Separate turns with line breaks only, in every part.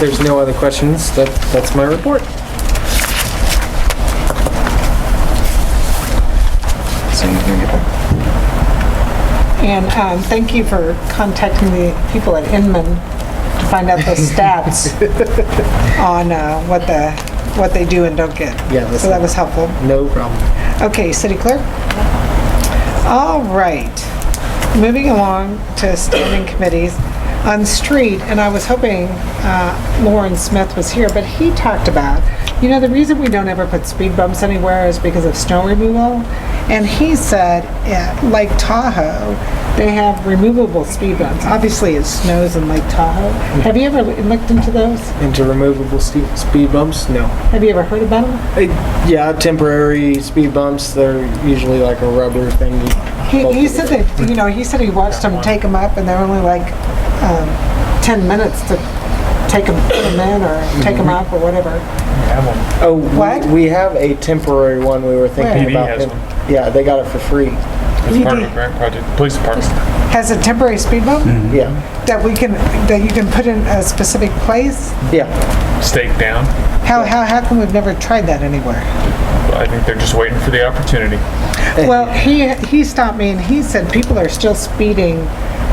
there's no other questions, that, that's my report.
And um, thank you for contacting the people at Inman to find out those stats on uh, what the, what they do and don't get.
Yeah, that's-
So that was helpful.
No problem.
Okay, city clerk? All right, moving along to standing committees. On street, and I was hoping uh, Lauren Smith was here, but he talked about, you know, the reason we don't ever put speed bumps anywhere is because of snow removal. And he said, yeah, Lake Tahoe, they have removable speed bumps. Obviously, it snows in Lake Tahoe. Have you ever looked into those?
Into removable ste- speed bumps? No.
Have you ever heard about them?
Uh, Yeah, temporary speed bumps, they're usually like a rubber thing. you
He,
bolt
he
it
said
together.
that, you know, he said he watched them take them up and they're only like, um, 10 minutes to take them, put 'em in or take them up or whatever.
Oh, we-
What?
we have a temporary one we were thinking
Where?
about.
PB has one.
Yeah, they got it for free.
It's part of a grant project, police department.
Has a temporary speed
Mm-hmm.
bump
Mm-hmm.
Yeah,
that we can, that you can put in a specific place?
yeah.
Stake down.
How, how, how come we've never tried that anywhere?
I think they're just waiting for the opportunity.
Well, he, he stopped me and he said people are still speeding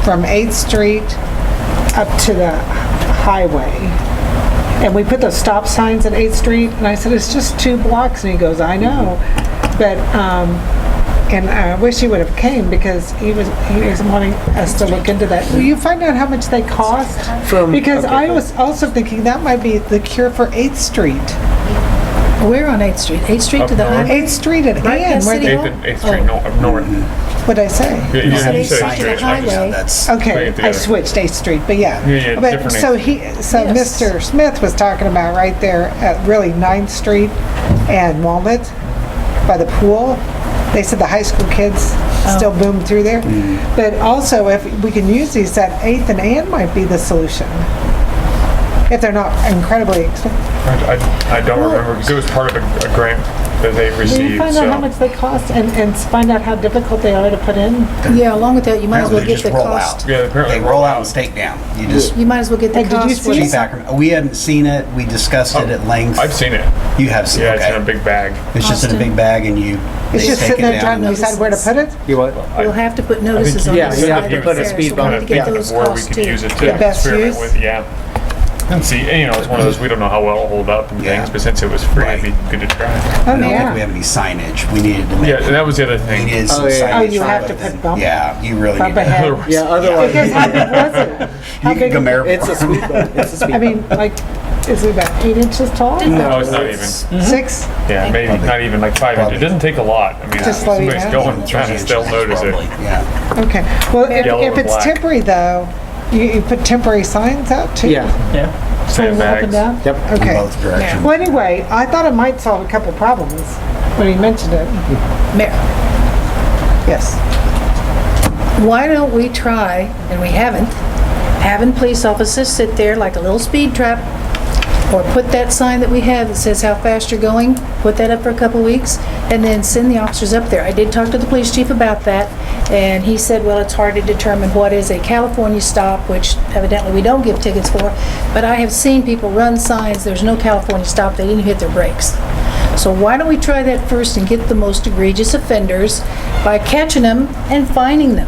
from 8th Street up to the highway. And we put those stop signs at 8th Street and I said, it's just two blocks. And he goes, I know. But, um, and I wish he would have came because he was, he was wanting us to look into that. Will you find out how much they cost?
From-
Because
okay,
I
go.
was also thinking that might be the cure for 8th Street.
We're on 8th Street, 8th Street
Up
to the
north.
highway.
8th Street at
Right,
Ann,
that's
where
city
Eighth
the,
hall.
and, Eighth Street, no,
Oh.
up north.
what'd I say?
Yeah, you
It's
didn't
eighth
say
side
Eighth
to
Street,
the
I just-
highway.
That's,
Bring
Okay,
it
I
together.
switched 8th Street, but yeah.
Yeah, yeah,
But,
different
so he, so
Yes.
Mr. Smith was talking about right there at really 9th Street and Walnut by the pool. They said the high school kids still boom through there.
Mm.
But also, if we can use these at 8th and Ann might be the solution. If they're not incredibly expensive.
I, I- I don't remember, 'cause it was part of a a grant that they
Will you
received,
find out how
so.
much they cost and, and find out how difficult they are to put in?
Yeah, along with that, you might as well
apparently they
get
just
the
roll
cost.
out.
Yeah, apparently
They roll out and stake down. You just,
You might as well get the
Hey, did you
cost.
see
where
it?
cheap
it's-
acronyms. We haven't seen it. We discussed it at length.
Oh, I've seen it.
You have seen,
Yeah, it's in a
okay.
big bag.
It's just in a
Austin.
big bag and you,
It's
they
just
stake it
sitting there
down.
trying to decide where to put it?
You what?
We'll have to put notices on
yeah,
the
you have
side
to
of
put a
there, so
speed
we'll
bump,
have to get
Kind
those
of where we
costs
could use
too.
it
The
to
best
experiment
use?
with, yeah. And see, and, you know, it's one of those, we don't know how well it'll hold up and
Yeah.
things, but since it was free, it'd be good to try.
Oh,
I don't think we
yeah.
have any signage. We needed to make.
Yeah, that was the other
We
thing.
needed some
Oh, yeah.
signage.
Oh, you
for
have to
it.
put bump-
Yeah, you really
Bump
need to.
ahead.
Otherwise-
Yeah,
Because
otherwise,
how big was it? How
You can
big?
come here.
it's a speed bump. It's a speed
I
bump.
mean, like, is it about eight inches tall?
No, it's not even.
Six?
Yeah, maybe not even like five inches. It doesn't take a lot. I mean,
Just slow you
somebody's
down.
going trying to still notice
Probably,
it.
Yeah.
Okay. Well,
Yellow
if, if
or
it's
black.
temporary though, you, you put temporary signs out too?
Yeah,
Going Up and
Sandbags.
down?
yep.
In
Okay.
both directions.
Well, anyway, I thought it might solve a couple problems when he mentioned it.
Mayor,
Yes.
Why don't we try, and we haven't, having police officers sit there like a little speed trap, or put that sign that we have that says how fast you're going, put that up for a couple weeks, and then send the officers up there. I did talk to the police chief about that, and he said, well, it's hard to determine what is a California stop, which evidently we don't give tickets for, but I have seen people run signs, there's no California stop, they didn't hit their brakes. So why don't we try that first and get the most egregious offenders by catching them and fining them?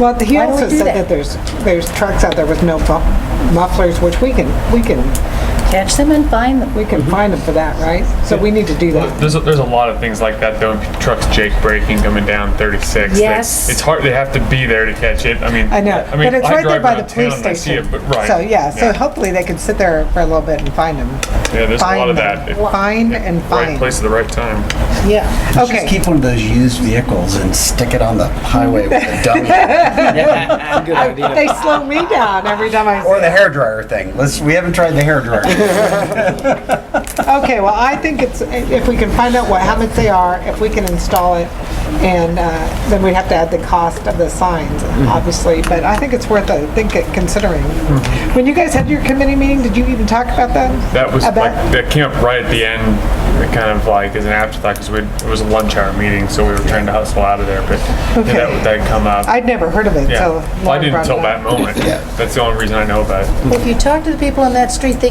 Well, he
Why don't we
also
do
said
that?
that there's, there's trucks out there with no mu- mufflers, which we can, we can,
catch them and find them.
we
Mm-hmm.
can find them for that, right? So we need to do that.
There's a, there's a lot of things like that though. Trucks Jake braking coming down 36. that-
Yes.
It's hard. They have to be there to catch it. I mean,
I know,
mean,
but it's
I
right there
drive
by
around
the police
town and I see
station.
it, but- right.
So, yeah, so
Yeah.
hopefully they can sit there for a little bit and find them.
Yeah, there's a lot of
Find
that.
them.
If-
Find and
Right
find.
place at the right time.
Yeah.
Okay.
Just keep one of those used vehicles and stick it on the highway with a dummy.
Good idea.
They slow me down every time I
Or
see
the hairdryer thing. Let's, we haven't tried the hairdryer.
Okay, well, I think it's, if we can find out what, how much they are, if we can install it, and uh, then we have to add the cost of the signs, obviously, but I think it's worth a think it considering. When you guys had your committee meeting, did you even talk about that?
That was
About-
like that came up right at the end. It kind of like as an afterthought because it was a lunch hour meeting, so we were trying to hustle out of there. But yeah,
Okay.
that that had come up.
I'd never heard of it,
yeah.
so.
well, I
Lauren
didn't
brought it
until that
up.
moment. That's the only reason I know about it.
If you talk to the people on that street, they